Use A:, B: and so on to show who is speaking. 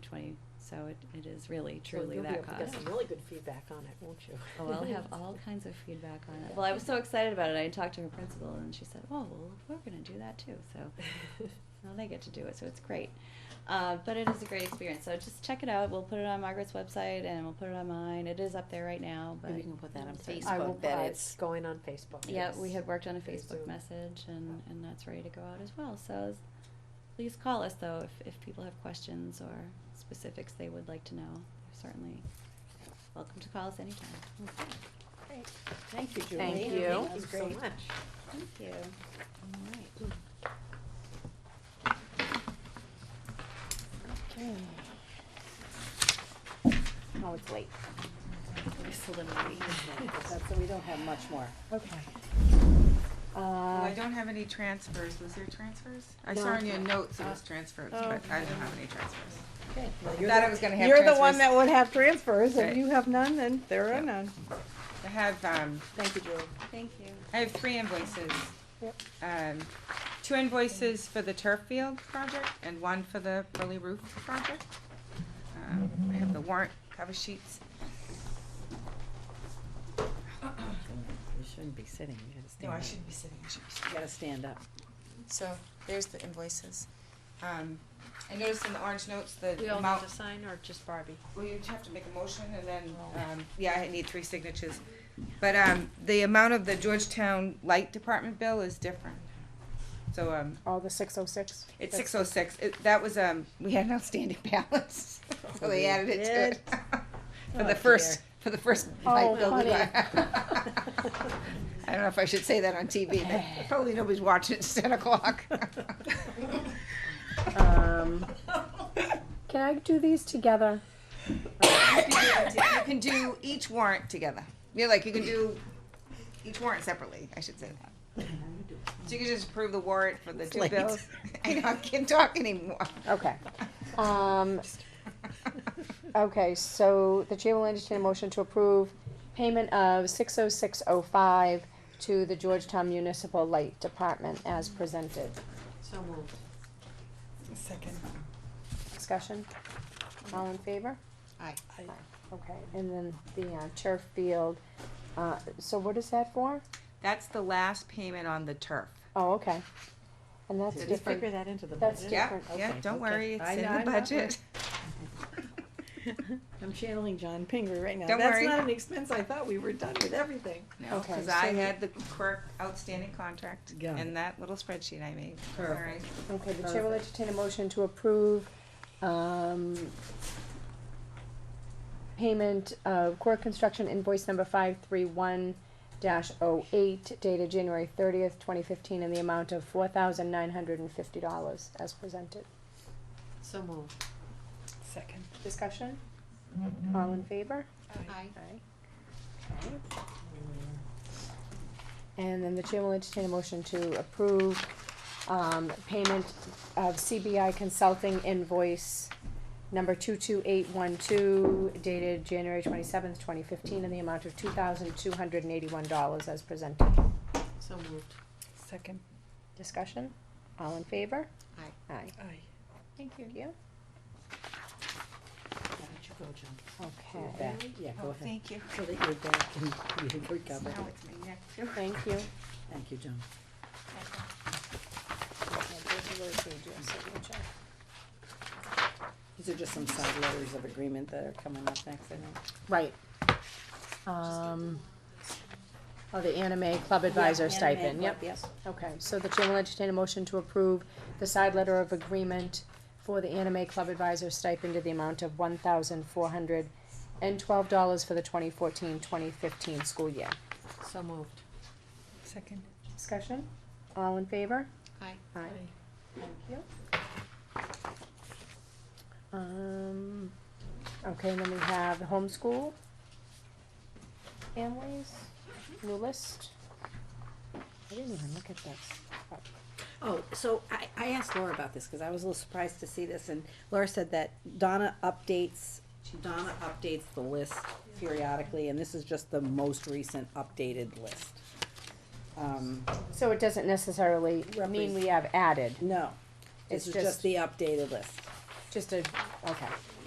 A: twenty, so it, it is really
B: So
A: truly
B: you'll be
A: that
B: able to Get
A: cost.
B: some really good feedback on it, won't you?
A: Oh, I'll have all kinds of feedback on it. Well, I was so excited about it. I talked to her principal and she said, oh, well, we're gonna do that too, so now they get to do it, so it's great. Uh, but it is a great experience, so just check it out. We'll put it on Margaret's website and we'll put it on mine. It is up there right now, but.
C: Maybe you can put that on
A: Facebook.
B: I will,
C: Facebook, that
B: it's
C: it's,
B: going on Facebook.
A: Yeah,
B: yes.
A: we had worked on a
B: Through
A: Facebook
B: Zoom.
A: message and, and that's ready to go out as well. So s- please call us though if, if people have questions or specifics they would like to know. They're certainly welcome to call us anytime.
D: Thank you, Julie.
C: Thank you.
B: Thank you
D: That's
B: so
D: great.
B: much.
A: Thank you.
C: oh, it's late.
D: That's- So we don't have much more.
C: Okay.
E: Well, Oh, I
C: Uh,
E: don't have any transfers. Was there transfers? I
B: No.
E: saw in your notes it was transfers, but I don't have any transfers.
D: Oh. Okay.
E: I thought I was gonna have
D: You're the one
E: transfers.
D: that would have transfers,
E: Right.
D: if you have none, then there are
E: Yep.
D: none.
E: I have, um,
D: Thank you, Julie.
A: Thank you.
E: I have three invoices.
D: Yep.
E: Um, two invoices for the turf field project and one for the early roof project. Um, I have the warrant cover sheets.
D: You shouldn't be sitting, you gotta
E: No, I shouldn't be sitting, I should be sitting.
D: You gotta stand up.
E: So, there's the invoices. Um, I noticed in the orange notes the amount.
B: sign or just Barbie?
E: Well, you have to make a motion and then, um, yeah, I need three signatures. But, um, the amount of the Georgetown Light Department bill is different. So, um,
F: Oh, the six oh six?
E: it's six oh six. It, that was, um, we had an outstanding balance, so they added it to it. For
D: Oh,
E: the first, for the first
F: Oh,
E: light bill. we
F: funny.
E: got. I don't know if I should say that on TV, but probably nobody's watching It's ten o'clock.
F: Um, can I do these together?
E: You can do each warrant together. You're like, you can do each warrant separately, I should say that. So you can just approve the warrant for the two
D: late.
E: bills. I know, I can't talk anymore.
F: Okay. Um, okay, so the chair will entertain a motion to approve payment of six oh six oh five to the Georgetown Municipal Light Department as presented.
B: So moved.
E: Second.
F: Discussion? All in favor?
C: Aye.
F: Okay, and then the uh, turf field, uh, so what is that for?
E: That's the last payment on the turf.
F: Oh, okay. And that's
E: It's
B: Did you
F: different.
B: figure that into the
F: That's
B: budget?
E: Yeah,
F: Different,
E: yeah,
F: okay,
B: okay.
E: don't worry, it's
B: I
E: in
B: know,
E: the
B: I'm not
E: budget.
D: I'm channeling John Pinger right now.
E: Don't
D: That's
E: worry.
D: not an expense, I thought we were done with everything.
E: No,
F: Okay,
E: cause I
F: so-
E: had the clerk outstanding contract
D: Got it.
E: in that little spreadsheet I made. All right.
F: Okay, the chair will entertain a motion to approve, um, payment of Core Construction invoice number five three one dash oh eight dated January thirtieth, twenty fifteen, in the amount of four thousand nine hundred and fifty dollars as presented.
B: So moved.
E: Second.
F: Discussion? All in favor?
C: Aye.
F: Okay. And then the chair will entertain a motion to approve, um, payment of CBI Consulting invoice number two-two-eight-one-two dated January twenty-seventh, twenty fifteen, in the amount of two thousand two hundred and eighty-one dollars as presented.
B: So moved.
E: Second.
F: Discussion? All in favor?
C: Aye.
F: Aye.
D: Aye.
F: Thank you.
B: Why don't you go, John?
F: Okay,
D: Yeah, go
E: Oh,
D: ahead.
E: thank you.
D: So that you're back and you can
E: Now
D: recover.
E: it's my neck too.
F: thank you.
D: Thank you, John. These are just some side letters of agreement that are coming up next, I think.
F: Right. Um, oh, the anime club advisor stipend, yep.
D: Yes.
F: Okay, so the chair will entertain a motion to approve the side letter of agreement for the anime club advisor stipend to the amount of one thousand four hundred and twelve dollars for the 2014-2015 school year.
B: So moved.
E: Second.
F: Discussion? All in favor?
C: Aye.
F: Aye. Thank you. Um, okay, and then we have the homeschool families, new list. I didn't even look at this.
D: Oh, so I, I asked Laura about this, cause I was a little surprised to see this, and Laura said that Donna updates, Donna updates the list periodically, and this is just the most recent updated list. Um,
F: So it doesn't necessarily mean we have added,
D: no,
F: It's
D: this is just
F: just-
D: the updated list.
F: Just a, okay.